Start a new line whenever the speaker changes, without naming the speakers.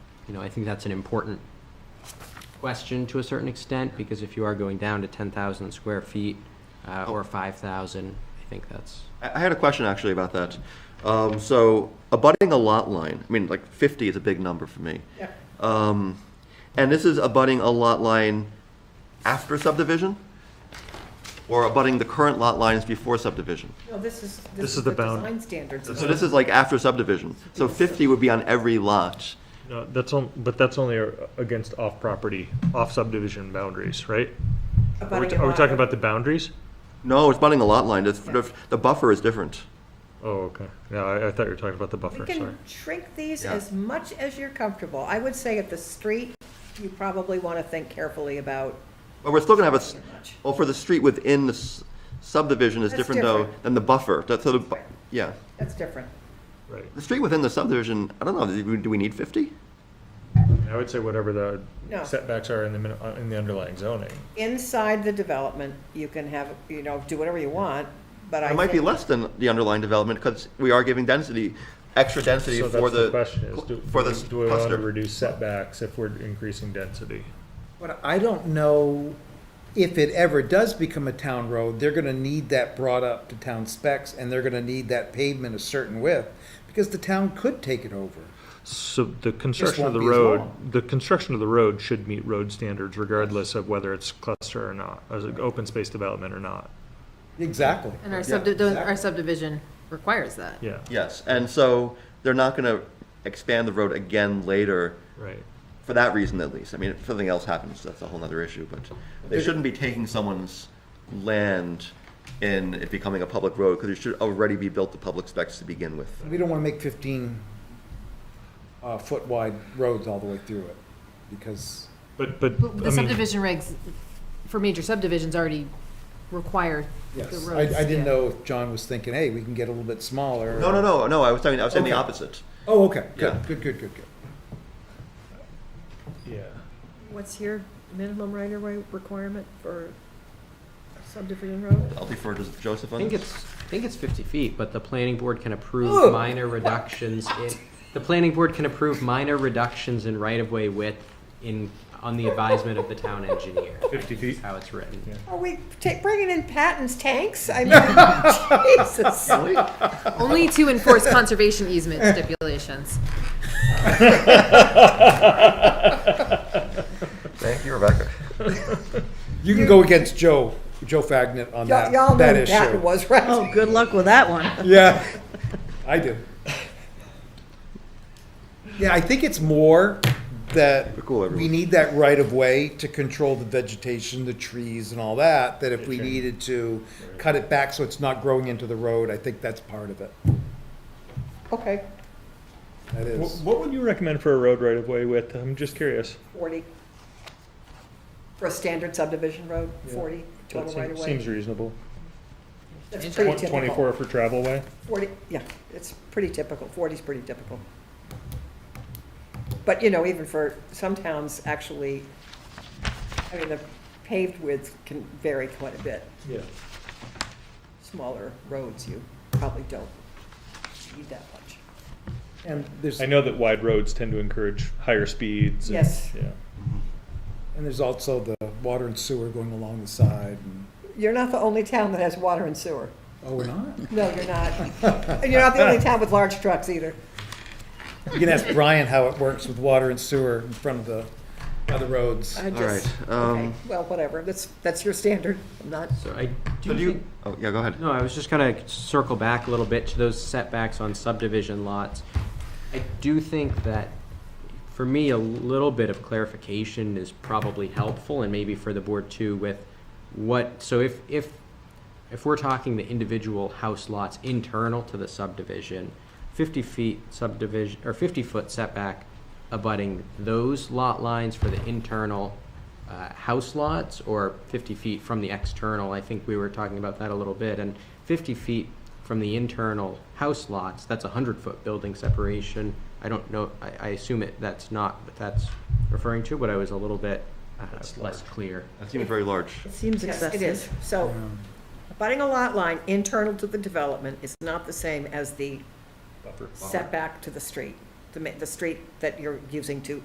you know, I think that's an important question to a certain extent, because if you are going down to ten thousand square feet, uh, or five thousand, I think that's,
I I had a question actually about that. Um, so abutting a lot line, I mean, like fifty is a big number for me.
Yeah.
Uh,
Um, and this is abutting a lot line after subdivision? Or abutting the current lot lines before subdivision?
No, this is,
This
this is
is the
the
bound-
design standards.
So this is like after subdivision. So fifty would be on every lot.
No, that's on, but that's only uh, against off-property, off-subdivision boundaries, right? Are we,
Abutting
are we
lot.
talking about the boundaries?
No, it's abutting a lot line. It's, the, the buffer is different.
Oh, okay. No, I, I thought you were talking about the
We
buffer, sorry.
can shrink these
Yeah.
as much as you're comfortable. I would say at the street, you probably want to think carefully about.
But we're still gonna have a, s- well, for the street within the s- subdivision is
That's
different though
different.
than the buffer. That's sort of, bu-
Right.
yeah.
That's different.
Right.
The street within the subdivision, I don't know, do we- do we need fifty?
I would say whatever
No.
the setbacks are in the, min- uh, in the underlying zoning.
Inside the development, you can have, you know, do whatever you want, but I
It might be
think-
less than the underlying development, because we are giving density, extra density
So
for
that's the
the,
question is, do,
for the
do we want to
cluster.
reduce setbacks if we're increasing density?
But I don't know if it ever does become a town road, they're gonna need that brought up to town specs and they're gonna need that pavement a certain width because the town could take it over.
So the construction of
won't
the
be as
road,
long.
the construction of the road should meet road standards regardless of whether it's cluster or not, as an open space development or not.
Exactly.
And our
Yeah,
subdivision, our
exactly.
subdivision requires that.
Yeah,
Yes, and so they're not gonna expand the road again later,
right.
for that reason at least. I mean, if something else happens, that's a whole nother issue, but they shouldn't be taking someone's land in it becoming a public road, because it should already be built to public specs to begin with.
We don't wanna make fifteen uh, foot wide roads all the way through it because
But, but, I
The
mean,
subdivision regs for major subdivisions already require the
Yes,
roads.
I, I didn't
yeah.
know if John was thinking, hey, we can get a little bit smaller.
No, no, no, no, I was talking, I was saying the
Okay.
opposite.
Oh, okay,
Yeah.
good, good, good, good, good.
yeah.
What's your minimum right-of-way requirement for subdivision road?
I'll defer to Joseph
I
on
think
this.
it's, I think it's fifty feet, but the planning board can approve
Ooh.
minor reductions in, the planning board can approve minor reductions in right-of-way width in, on the advisement of the town engineer.
50 feet.
How it's written.
Are we ta- bringing in patents tanks? I mean, Jesus.
Only to enforce conservation easement stipulations.
Thank you, Rebecca.
You can go against Joe, Joe Fagnet
Y'all
on that,
y'all know
that
what
issue.
patent was, right?
Oh, good luck with that one.
Yeah, I do. Yeah, I think it's more that
We're cool,
we
everyone.
need that right of way to control the vegetation, the trees and all that, that if we
Okay.
needed to cut it back so it's not growing into the road, I think that's part of it.
Okay,
That
Wh-
is.
What would you recommend for a road right of way width? I'm just curious.
40. For a standard subdivision road, 40
That
total
seem-
right-of-way.
Seems reasonable.
That's
Tw-
pretty typical.
Twenty-four for travel way?
40, yeah, it's pretty typical, 40 is pretty typical. But, you know, even for, some towns actually, I mean, the paved width can vary quite a bit.
Yeah.
Smaller roads, you probably don't need that much.
And there's,
I
and
know that wide roads tend to encourage higher speeds. and-
Yes.
Yeah.
there's also the water and sewer going along the side and,
You're not the only town that has water and sewer.
oh, we're not?
No, you're not. And you're not the only town with large trucks either.
You can ask Brian how it works with water and sewer in front of the other roads.
I
All right,
just, okay,
um,
well, whatever, that's, that's your standard, I'm not.
So I
so
do
do
think
you, oh, yeah, go ahead.
No, I was just gonna circle back a little bit to those setbacks on subdivision lots. I do think that, for me, a little bit of clarification is probably helpful, and maybe for the board too, with what, so if, if, if we're talking the individual house lots internal to the subdivision, fifty feet subdivision, or fifty-foot setback abutting those lot lines for the internal uh, house lots or 50 feet from the external. I think we were talking about that a little bit. And 50 feet from the internal house lots, that's a 100-foot building separation. I don't know, I, I assume it, that's not what that's referring to, but I was a little bit uh, less clear.
That seems very large.
It seems
Yes,
excessive.
It is, so, abutting a lot line internal to the development is not the same as the setback to the street, the, ma- the street that you're using to